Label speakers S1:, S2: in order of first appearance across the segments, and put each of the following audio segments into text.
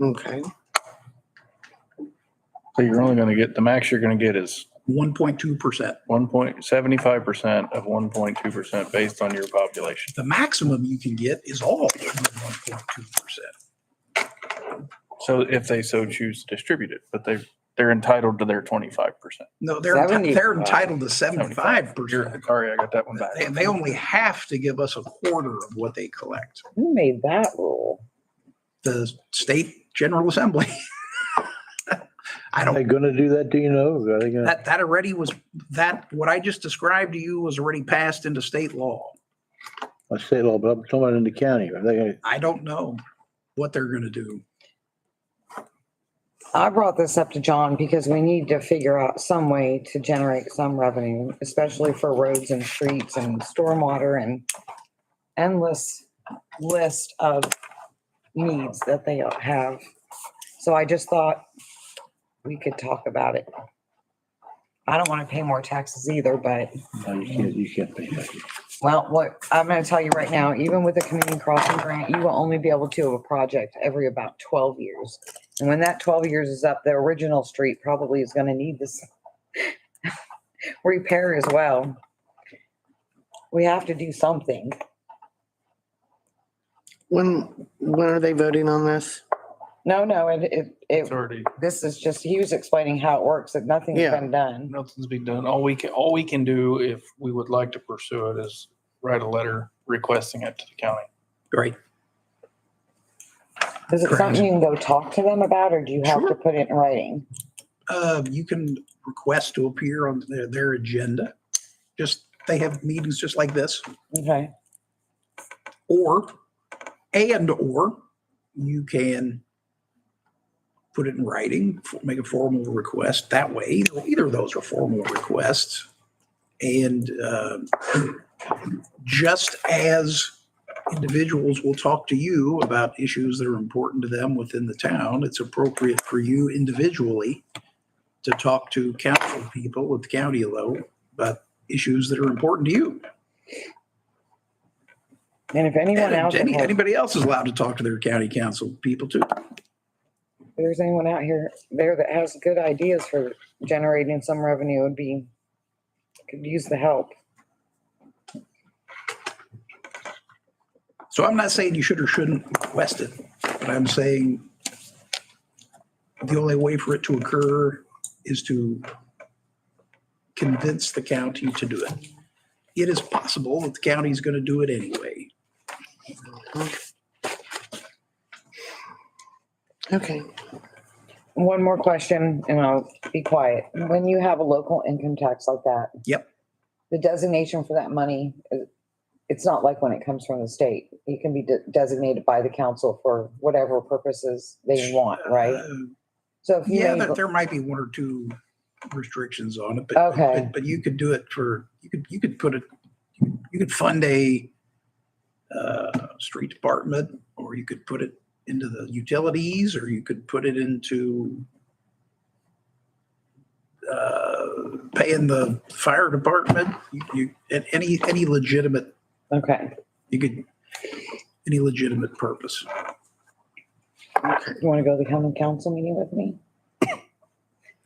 S1: Okay.
S2: So you're only gonna get, the max you're gonna get is
S3: one point two percent.
S2: one point seventy-five percent of one point two percent based on your population.
S3: The maximum you can get is all of one point two percent.
S2: So if they so choose to distribute it, but they, they're entitled to their twenty-five percent.
S3: No, they're, enti- they're
S1: 75.
S3: entitled to seventy-five percent.
S2: Sorry, I got that one back.
S3: They, they only have to give us a quarter of what they collect.
S1: Who made that rule?
S3: The state general assembly. I
S4: Are
S3: don't,
S4: they gonna do that, do you know? Are they gonna,
S3: that, that already was, that, what I just described to you was already passed into state law.
S4: I say law, but I'm talking about in the county, are they gonna,
S3: I don't know what they're gonna do.
S5: I brought this up to John because we need to figure out some way to generate some revenue, especially for roads and streets and stormwater and endless list of needs that they have. So I just thought we could talk about it. I don't want to pay more taxes either, but
S4: no, you can't, you can't pay that.
S5: well, what, I'm gonna tell you right now, even with the community crossing grant, you will only be able to have a project every about twelve years. And when that twelve years is up, the original street probably is gonna need this repair as well. We have to do something.
S1: When, when are they voting on this?
S5: No, no, it, it,
S2: It's
S5: it,
S2: already,
S5: this is just, he was explaining how it works, that nothing's
S1: Yeah.
S5: been done.
S2: nothing's been done. All we can, all we can do if we would like to pursue it is write a letter requesting it to the county.
S3: Right.
S5: Is it
S3: Correct.
S5: something you can go talk to them about, or do you have to
S3: Sure.
S5: put it in writing?
S3: Uh, you can request to appear on their, their agenda. Just, they have meetings just like this.
S5: Okay,
S3: Or, and or you can put it in writing, f- make a formal request that way. Either, either of those are formal requests. And uh, just as individuals will talk to you about issues that are important to them within the town, it's appropriate for you individually to talk to council people at the county level about issues that are important to you.
S5: and if anyone
S3: And
S5: else.
S3: any-
S5: has-
S3: Anybody else is allowed to talk to their county council people too.
S5: If there's anyone out here there that has good ideas for generating some revenue, would be, could use the help.
S3: So I'm not saying you should or shouldn't request it, but I'm saying the only way for it to occur is to convince the county to do it. It is possible that the county's going to do it anyway.
S1: Okay.
S5: One more question and I'll be quiet. When you have a local income tax like that.
S3: Yep.
S5: The designation for that money, uh, it's not like when it comes from the state. It can be de- designated by the council for whatever purposes they want, right?
S3: Uh,
S5: So if you.
S3: Yeah,
S5: made-
S3: there, there might be one or two restrictions on it, but,
S5: Okay.
S3: but, but you could do it for, you could, you could put it, you could fund a uh, street department, or you could put it into the utilities, or you could put it into uh, paying the fire department, you, you, and any, any legitimate,
S5: Okay,
S3: you could, any legitimate purpose.
S5: you want to go to the county council meeting with me?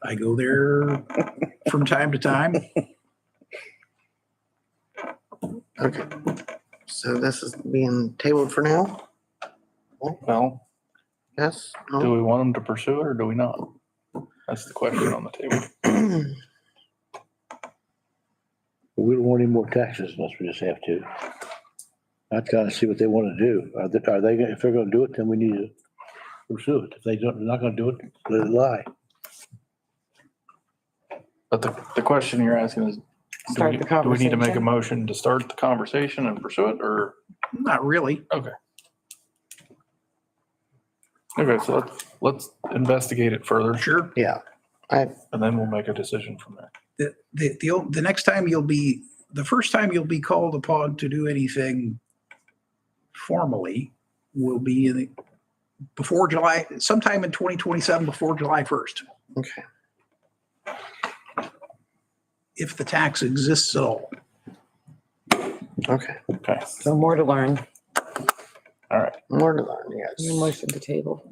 S3: I go there from time to time.
S1: Okay. So this is being tabled for now?
S2: Well,
S1: Yes?
S2: do
S1: No?
S2: we want them to pursue it or do we not? That's the question on the table.
S4: But we don't want any more taxes unless we just have to. I'd kinda see what they wanna do. Are they, are they, gonna- if they're gonna do it, then we need to pursue it. If they don't, they're not gonna do it, let it lie.
S2: But the, the question you're asking is, do
S5: Start
S2: we,
S5: the
S2: do we need to make a
S5: conversation.
S2: motion to start the conversation and pursue it or?
S3: Not really.
S2: Okay, so let's, let's investigate it further
S3: Sure.
S1: Yeah. I,
S2: and then we'll make a decision from there.
S3: the, the, the, ol- the next time you'll be, the first time you'll be called upon to do anything formally will be in, the- before July, sometime in 2027, before July 1st,
S1: okay.
S3: if the tax exists at all.
S1: Okay.
S2: Okay,
S5: So more to learn.
S2: all right.
S1: More to learn, yes.
S5: Motion to table.